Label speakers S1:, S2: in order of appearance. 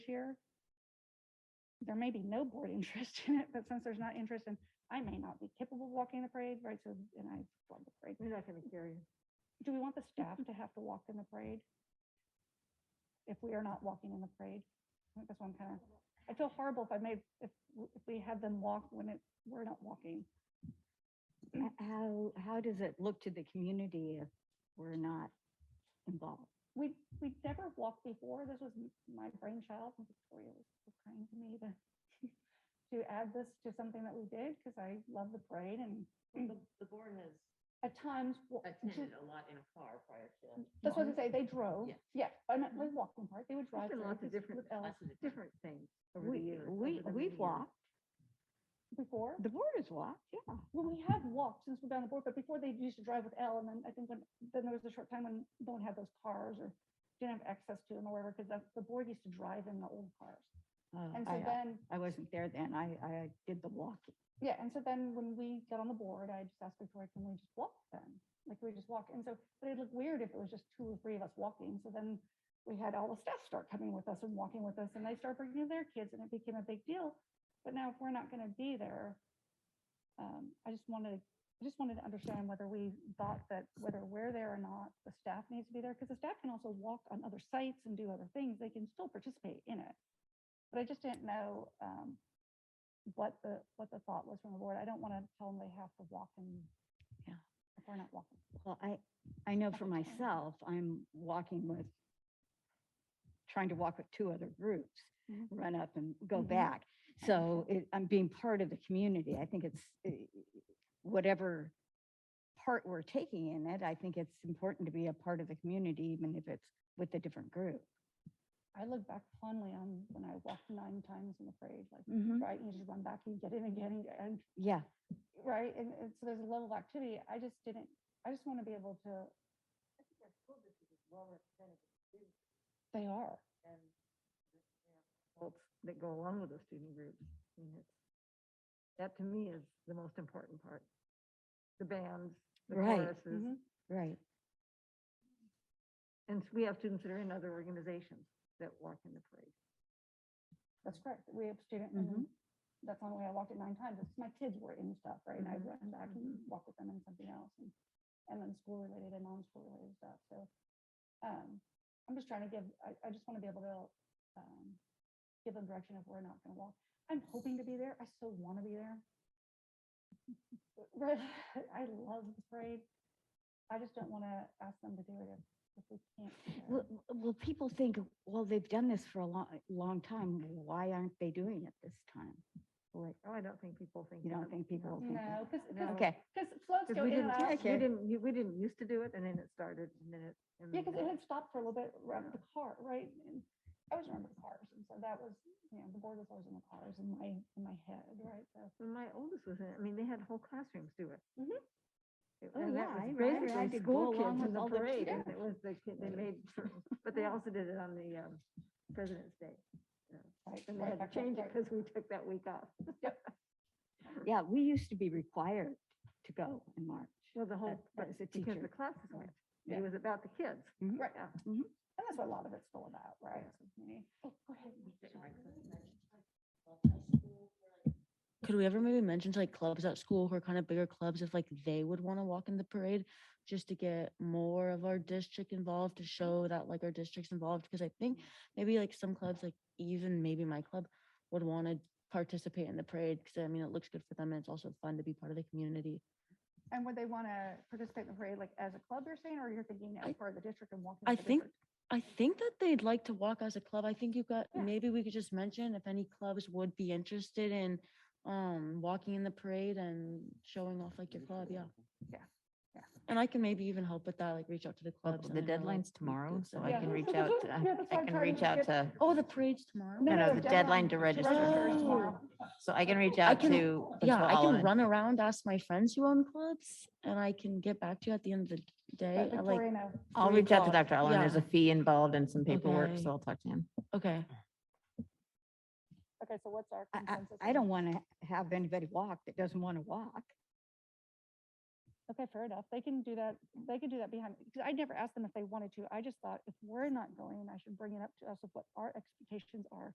S1: there may be no board interest in it, but since there's not interest in, I may not be capable of walking the parade, right? So, and I walk the parade.
S2: We're not gonna carry it.
S1: Do we want the staff to have to walk in the parade? If we are not walking in the parade? I think that's one kind of, I feel horrible if I made, if, w- if we had them walk when it, we're not walking.
S3: h- How, how does it look to the community if we're not involved?
S1: We, we never walked before. This was m- my brainchild. and Victoria was so kind to me to, to add this to something that we did because I love the parade and
S4: Well,
S2: Mm.
S4: The, the board has
S1: at times. wa- ju-
S4: attended a lot in a car prior to.
S1: That's what I say. They drove.
S4: Yeah.
S1: Yeah, and they walked in part. They would drive.
S2: Mm-hmm. There's
S1: through with-
S2: been lots of different,
S1: with Ellis
S4: lots of different-
S2: different things over the
S3: We,
S2: years.
S3: we,
S2: over the many
S3: we've
S2: years.
S3: walked,
S1: Before.
S3: the board has walked, yeah.
S1: Well, we have walked since we've been on the board, but before they used to drive with L, and then I think when, then there was a short time when no one had those cars or didn't have access to them or whatever, because the board used to drive in the old cars.
S3: Uh,
S1: And
S3: I-
S1: so
S3: I-
S1: then,
S3: I wasn't there then. I, I did the walking.
S1: yeah, and so then when we got on the board, I just asked Victoria, can we just walk then? Like, can we just walk? And so, but it'd look weird if it was just two or three of us walking. So then we had all the staff start coming with us and walking with us, and they start bringing their kids, and it became a big deal. But now if we're not gonna be there, um, I just wanted, I just wanted to understand whether we thought that whether we're there or not, the staff needs to be there, because the staff can also walk on other sites and do other things. They can still participate in it. But I just didn't know, um, what the, what the thought was from the board. I don't want to tell them they have to walk and,
S3: Yeah.
S1: if we're not walking.
S3: Well, I, I know for
S1: Okay.
S3: myself, I'm walking with, trying to walk with two other groups,
S1: Mhm.
S3: run up and go
S1: Mhm.
S3: back. So it, I'm being part of the community. I think it's, eh, whatever part we're taking in it, I think it's important to be a part of the community, even if it's with a different group.
S1: I look back fondly on when I walked nine times in the parade, like,
S3: Mhm.
S1: right, you just run back and get in again and, and,
S3: Yeah,
S1: right? And, and so there's a level of activity. I just didn't, I just want to be able to,
S4: I think our school district is well represented with students
S1: they are.
S4: and.
S2: Adults That go along with those student groups. I mean, it's- That to me is the most important part. The bands, the
S3: Right.
S2: choruses,
S1: Mhm.
S3: right. mm-hmm.
S2: and we have students that are in other organizations that walk in the parade.
S1: That's correct. We have student, and
S2: Mm-hmm.
S1: that's the only way I walked it nine times. It's my kids were in stuff, right? And I
S2: Mhm.
S1: run back and
S2: Mhm.
S1: walk with them in something else and, and then school related and non-school related stuff. So, um, I'm just trying to give, I, I just want to be able to, um, give them direction if we're not going to walk. I'm hoping to be there. I so want to be there. But I love the parade. I just don't want to ask them to do it if, if we can't. be there.
S3: Well, well, people think, well, they've done this for a long, long time. Why aren't they doing it this time? Well,
S2: Oh, I don't think people think.
S3: You don't
S2: that.
S3: think people think that?
S1: No, because,
S2: No.
S1: because,
S3: Okay,
S1: floats
S2: Because
S1: go
S2: we
S1: in and
S2: didn't,
S1: out.
S2: we
S3: Okay.
S2: didn't, u- we didn't used to do it, and then it started, and then it. and
S1: Yeah,
S2: then
S1: because it
S5: Mm-hmm.
S2: it-
S1: had stopped for a little bit around the car, right? And I always remember the cars. And so that was, you know, the board was always in the cars in my, in my head, right? So
S2: When my oldest was in, it, I mean, they had whole classrooms do it.
S1: Mhm.
S2: It-
S3: Oh,
S2: and that
S3: yeah,
S2: was
S3: I remember. I
S2: Basically,
S3: could
S2: school
S3: go along
S2: kids
S3: with
S2: in the
S3: all the
S2: parade, and
S1: kids.
S2: it was the, kid- they made, certain- but they also did it on the um, President's Day.
S1: right,
S2: And they
S1: right
S2: had to
S1: back up,
S2: change it
S1: right.
S2: because we took that week off.
S3: yeah, we used to be required to go in March.
S2: Well, the whole,
S3: As-
S2: but
S3: as a
S2: because
S3: teacher.
S2: the classes went,
S1: Yeah.
S2: it was about the kids.
S6: Mm-hmm.
S3: Mhm.
S1: Right.
S2: Yeah.
S1: And that's what a lot of it's still about, right? So, I mean, Oh, go ahead.
S6: Could we ever maybe mention to like clubs at school who are kind of bigger clubs if like they would want to walk in the parade just to get more of our district involved to show that like our district's involved? Because I think maybe like some clubs, like even maybe my club would want to participate in the parade because I mean, it looks good for them and it's also fun to be part of the community.
S1: And would they want to participate in the parade, like as a club you're saying, or you're thinking as
S6: I-
S1: part of the district and walking?
S6: I
S1: with the
S6: think-
S1: district?
S6: I think that they'd like to walk as a club. I think you got,
S1: Yeah.
S6: maybe we could just mention if any clubs would be interested in um walking in the parade and showing off like your club, yeah.
S1: Yeah, yeah.
S6: And I can maybe even help with that, like reach out to the
S5: Well,
S6: clubs. and
S5: Oh, The
S6: then they'll, like,
S5: deadline's tomorrow,
S6: good
S5: so
S6: stuff.
S5: I
S1: Yeah.
S5: can reach out, to-
S1: Yeah, that's
S5: I
S1: why
S5: can
S1: I'm trying to
S5: reach out
S1: get-
S5: to,
S6: Oh, the parade's tomorrow?
S5: No, no, the deadline to
S1: is
S5: register.
S1: tomorrow.
S5: so I can reach out
S6: can-
S5: to.
S6: Yeah, I
S5: all
S6: can
S5: in.
S6: run around, ask my friends who own clubs and I can get back to you at the end of the day.
S1: But
S6: I like,
S1: Victoria, no.
S5: I'll
S6: three
S5: reach out to
S6: o'clock.
S5: Dr. Allen. There's
S6: Yeah.
S5: a fee involved and some paperwork,
S6: Okay.
S5: so I'll talk to him.
S6: okay.
S1: Okay, so what's our
S3: I, I,
S1: consensus?
S3: I
S1: on-
S3: don't want to have anybody walk that doesn't want to walk.
S1: Okay, fair enough. They can do that. They can do that behind, because I never asked them if they wanted to. I just thought if we're not going, I should bring it up to us of what our expectations are